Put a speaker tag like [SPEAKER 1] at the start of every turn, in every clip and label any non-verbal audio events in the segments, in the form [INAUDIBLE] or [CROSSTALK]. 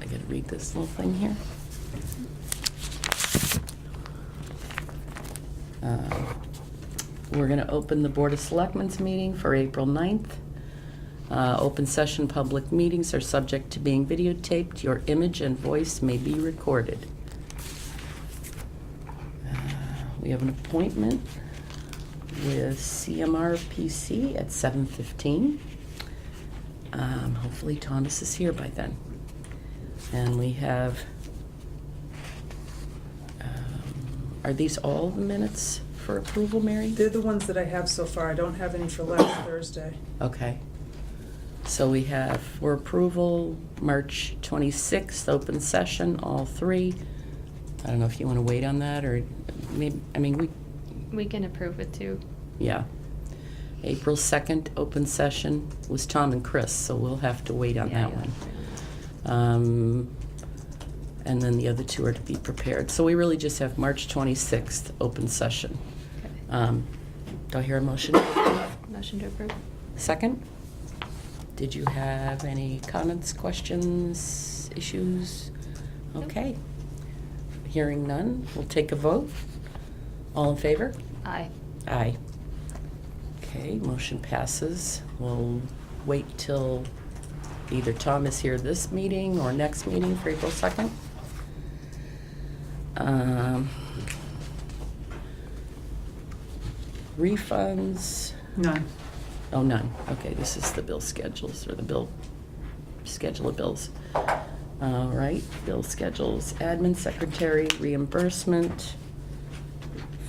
[SPEAKER 1] gotta read this little thing here. Uh, We're gonna open the Board of Selectmen's meeting for April 9th. Uh, Open session public meetings are subject to being videotaped. Your image and voice may be recorded. Uh, We have an appointment with CMR PC at 7:15. Um, Hopefully Tondas is here by then. And we have, um, are these all the minutes for approval, Mary?
[SPEAKER 2] They're the ones that I have so far. I don't have any for [COUGHS] last Thursday.
[SPEAKER 1] Okay. So we have for approval, March 26th, open session, all three. I don't know if you want to wait on that, or maybe, I mean, we,
[SPEAKER 3] We can approve it too.
[SPEAKER 1] yeah. April 2nd, open session was Tom and Chris, so we'll have to wait on
[SPEAKER 3] Yeah,
[SPEAKER 1] that
[SPEAKER 3] yeah.
[SPEAKER 1] one. Um, And then the other two are to be prepared. So we really just have March 26th, open session.
[SPEAKER 3] Okay.
[SPEAKER 1] Um, Do I hear a motion?
[SPEAKER 3] Motion to approve?
[SPEAKER 1] Second? Did you have any comments, questions, issues?
[SPEAKER 3] Nope.
[SPEAKER 1] Okay. Hearing none, we'll take a vote. All in favor?
[SPEAKER 3] Aye.
[SPEAKER 1] Aye. Okay, motion passes. We'll wait till either Tom is here this meeting or next meeting for April 2nd. Um, Refunds,
[SPEAKER 2] None.
[SPEAKER 1] oh, none. Okay, this is the bill schedules or the bill, schedule of bills. All right, bill schedules, admin secretary reimbursement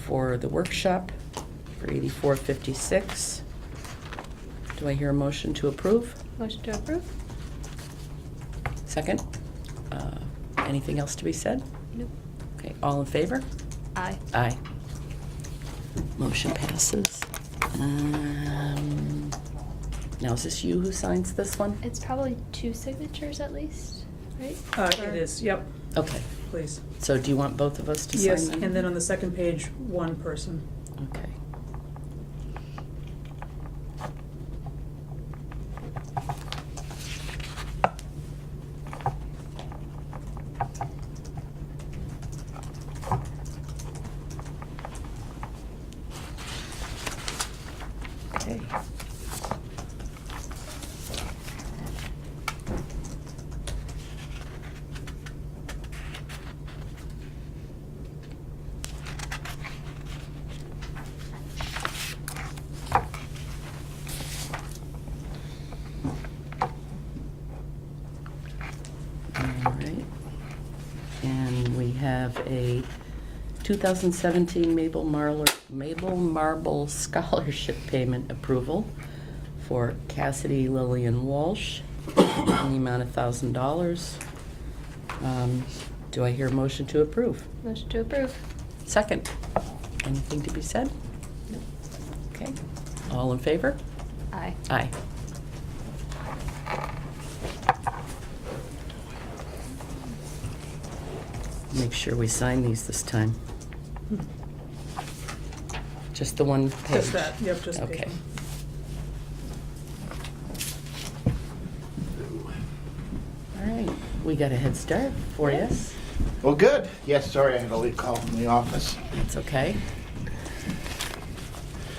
[SPEAKER 1] for the workshop for 8456. Do I hear a motion to approve?
[SPEAKER 3] Motion to approve?
[SPEAKER 1] Second? Uh, Anything else to be said?
[SPEAKER 3] Nope.
[SPEAKER 1] Okay, all in favor?
[SPEAKER 3] Aye.
[SPEAKER 1] Aye. Motion passes. Um, Now, is this you who signs this one?
[SPEAKER 3] It's probably two signatures at least, right?
[SPEAKER 2] Uh,
[SPEAKER 3] Or-
[SPEAKER 2] it is, yep,
[SPEAKER 1] Okay,
[SPEAKER 2] please.
[SPEAKER 1] so do you want both of us to sign
[SPEAKER 2] Yes,
[SPEAKER 1] them?
[SPEAKER 2] and then on the second page, one person.
[SPEAKER 1] Okay. Okay. All right. And we have a 2017 Mabel Marler, Mabel Marble [LAUGHS] Scholarship Payment Approval for Cassidy Lillian Walsh in the amount of $1,000. Um, Do I hear a motion to approve?
[SPEAKER 3] Motion to approve?
[SPEAKER 1] Second. Anything to be said?
[SPEAKER 3] Nope.
[SPEAKER 1] Okay. All in favor?
[SPEAKER 3] Aye.
[SPEAKER 1] Aye. Make sure we sign these this time. Just the one page?
[SPEAKER 2] Just that, yep, just page
[SPEAKER 1] Okay.
[SPEAKER 2] one.
[SPEAKER 1] All right, we got a head start for you.
[SPEAKER 3] Yes.
[SPEAKER 4] Well, good. Yes, sorry, I had a late call from the office.
[SPEAKER 1] It's okay.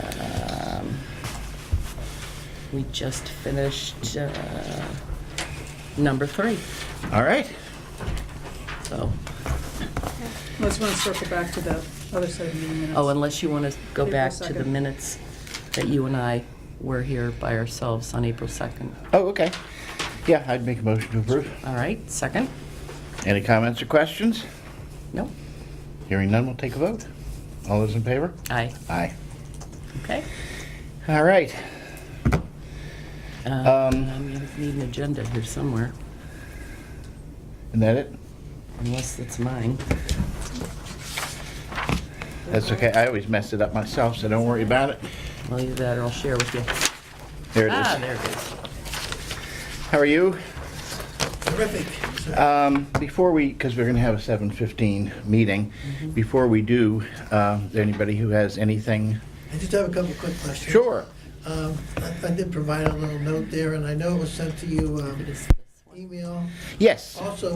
[SPEAKER 1] Um, We just finished uh, number three,
[SPEAKER 4] All right.
[SPEAKER 1] so,
[SPEAKER 2] Let's want to circle back to the other side of the minutes.
[SPEAKER 1] oh, unless you want to go
[SPEAKER 2] April
[SPEAKER 1] back to the
[SPEAKER 2] 2nd.
[SPEAKER 1] minutes that you and I were here by ourselves on April 2nd.
[SPEAKER 4] Oh, okay. Yeah, I'd make a motion to approve.
[SPEAKER 1] All right, second?
[SPEAKER 4] Any comments or questions?
[SPEAKER 1] No?
[SPEAKER 4] Hearing none, we'll take a vote. All those in favor?
[SPEAKER 1] Aye,
[SPEAKER 4] Aye.
[SPEAKER 1] okay.
[SPEAKER 4] All right.
[SPEAKER 1] Um, I need an agenda here somewhere,
[SPEAKER 4] Isn't that it?
[SPEAKER 1] unless it's mine.
[SPEAKER 4] That's okay. I always mess it up myself, so don't worry about it.
[SPEAKER 1] Well, either that or I'll share with you.
[SPEAKER 4] There it
[SPEAKER 1] Ah,
[SPEAKER 4] is.
[SPEAKER 1] there it is.
[SPEAKER 4] How are you?
[SPEAKER 5] Terrific.
[SPEAKER 4] Um, Before we, because we're going to have a 7:15 meeting, before we do, uh, is there anybody who has anything?
[SPEAKER 5] I just have a couple quick questions.
[SPEAKER 4] Sure.
[SPEAKER 5] Um, I I did provide a little note there, and I know it was sent to you, um,
[SPEAKER 1] It is this one.
[SPEAKER 5] email.
[SPEAKER 4] Yes.
[SPEAKER 5] Also,